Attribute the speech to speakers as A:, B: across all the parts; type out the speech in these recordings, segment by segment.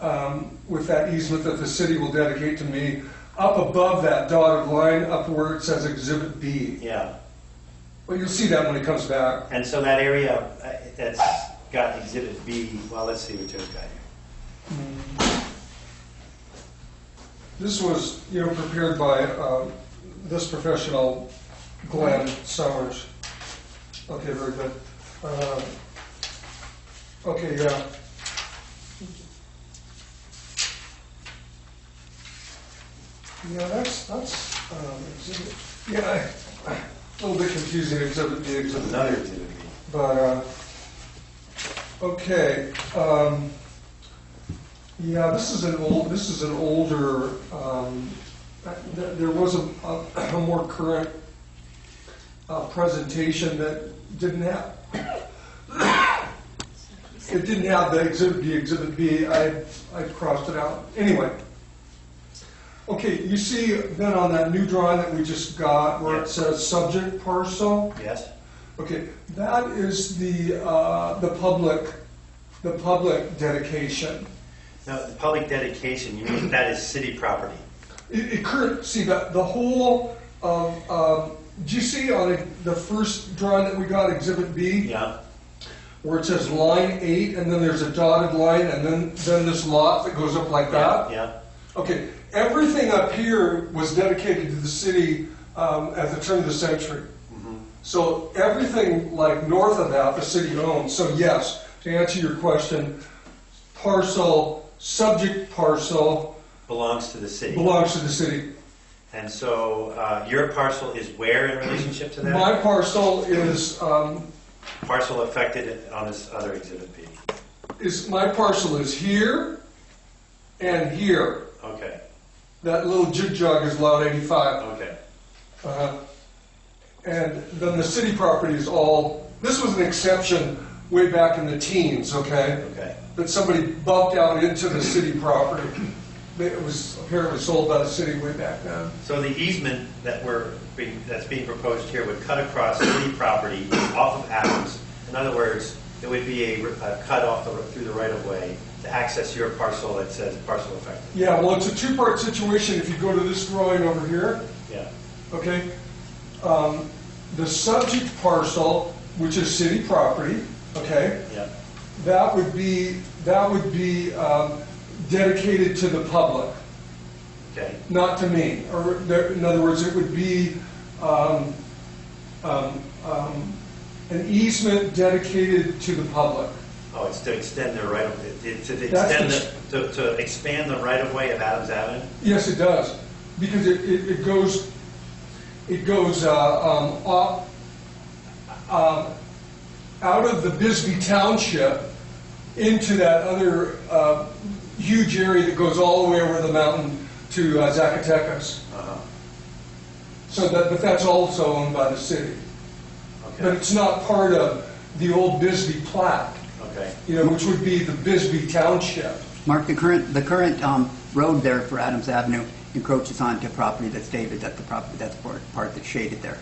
A: um, with that easement that the city will dedicate to me, up above that dotted line, up where it says Exhibit B.
B: Yeah,
A: Well, you'll see that when it comes back.
B: and so that area uh, that's got exhibit B, well, let's see what Joe's got here.
A: This was, you know, prepared by um, this professional, Glenn Summers. Okay, very good. Um, Okay, yeah. Yeah, that's, that's, um, exhibit, yeah, I- a little bit confusing, exhibit B,
B: There's
A: exhibit B.
B: another exhibit B.
A: But, uh, okay, um, yeah, this is an old, this is an older, um, uh, th- there was a, a a more current, uh, presentation that didn't have, it didn't have the exhibit B, exhibit B, I, I crossed it out, anyway. Okay, you see then on that new drawing that we just got, where
B: Yeah.
A: it says subject parcel?
B: Yes?
A: Okay, that is the, uh, the public, the public dedication.
B: No, the public dedication, you mean that is city property?
A: It, it current, see, that the whole of, um, do you see on the first drawing that we got, Exhibit B?
B: Yeah,
A: Where it says line eight, and then there's a dotted line, and then, then this lot that goes up like that?
B: yeah,
A: Okay, everything up here was dedicated to the city um, at the turn of the century. So everything like north of that, the city owns. So yes, to answer your question, parcel, subject parcel
B: belongs to the city.
A: belongs to the city.
B: And so uh, your parcel is where in relationship to that?
A: My parcel is, um,
B: Parcel affected on this other exhibit B.
A: is, my parcel is here and here.
B: Okay,
A: That little jig jog is lot 85.
B: okay.
A: Uh, And then the city property is all, this was an exception way back in the teens, okay?
B: Okay.
A: That somebody bumped out into the city property. It was apparently sold by the city way back then.
B: So the easement that we're, being- that's being proposed here would cut across city property off of Adams. In other words, it would be a a cut off the- through the right of way to access your parcel that says parcel affected.
A: Yeah, well, it's a two-part situation. If you go to this drawing over here,
B: Yeah,
A: okay? um, The subject parcel, which is city property, okay?
B: yeah,
A: That would be, that would be um, dedicated to the public.
B: okay,
A: not to me. Or there, in other words, it would be um, um, um, an easement dedicated to the public.
B: Oh, it's to extend the right of, it- to the
A: That's
B: extend, the- to to expand the right of way of Adams Avenue?
A: Yes, it does, because it, it, it goes, it goes uh, um, off, um, out of the Bisbee Township into that other uh, huge area that goes all the way over the mountain to uh, Zacatecas.
B: Uh-huh.
A: So that, but that's also owned by the city. But
B: Okay,
A: it's not part of the old Bisbee plat,
B: okay.
A: you know, which would be the Bisbee Township.
C: Mark, the current, the current um, road there for Adams Avenue encroaches onto property that's David, that's the property, that's part part that's shaded there.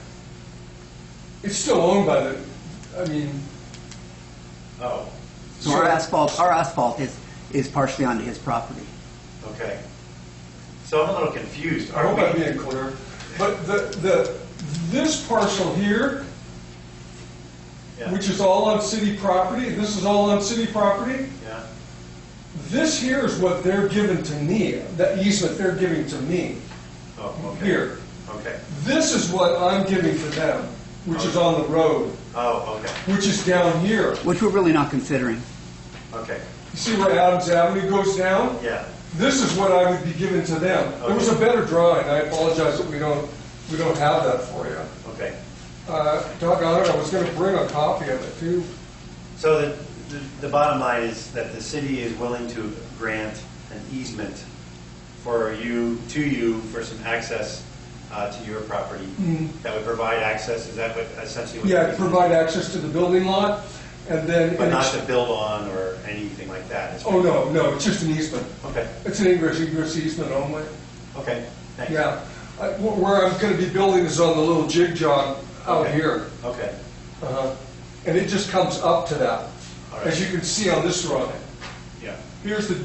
A: It's still owned by the, I mean,
B: Oh,
C: So our
A: Sure.
C: asphalt, our asphalt is, is partially onto his property.
B: okay. So I'm a little confused.
A: I
B: Are
A: hope I'm
B: we,
A: being clear, but the, the, this parcel here,
B: yeah,
A: which is all on city property, this is all on city property,
B: yeah,
A: this here is what they're giving to me, that easement they're giving to me.
B: oh, okay.
A: Here.
B: Okay,
A: This is what I'm giving to them, which is on the road,
B: oh, okay,
A: which is down here.
C: Which we're really not considering.
B: okay,
A: You see where Adams Avenue goes down?
B: yeah.
A: This is what I would be giving to them. There was a better drawing, I apologize that we don't, we don't have that for you.
B: Okay,
A: Uh, Doggone it, I was gonna bring a copy of it too.
B: so the, the- the bottom line is that the city is willing to grant an easement for you, to you, for some access uh, to your property? That would provide access, is that what essentially? what
A: Mm-hmm. Yeah,
B: it
A: to
B: is?
A: provide access to the building lot, and then.
B: But not to build on or anything like that? It's-
A: Oh, no, no, it's just an easement.
B: Okay,
A: It's an ingress, egress easement only,
B: okay, thanks.
A: yeah. I- wh- Where I'm gonna be building is on the little jig jog out
B: Okay.
A: here.
B: Okay,
A: Uh-huh. And it just comes up to that,
B: All right.
A: as you can see on this drawing.
B: yeah.
A: Here's the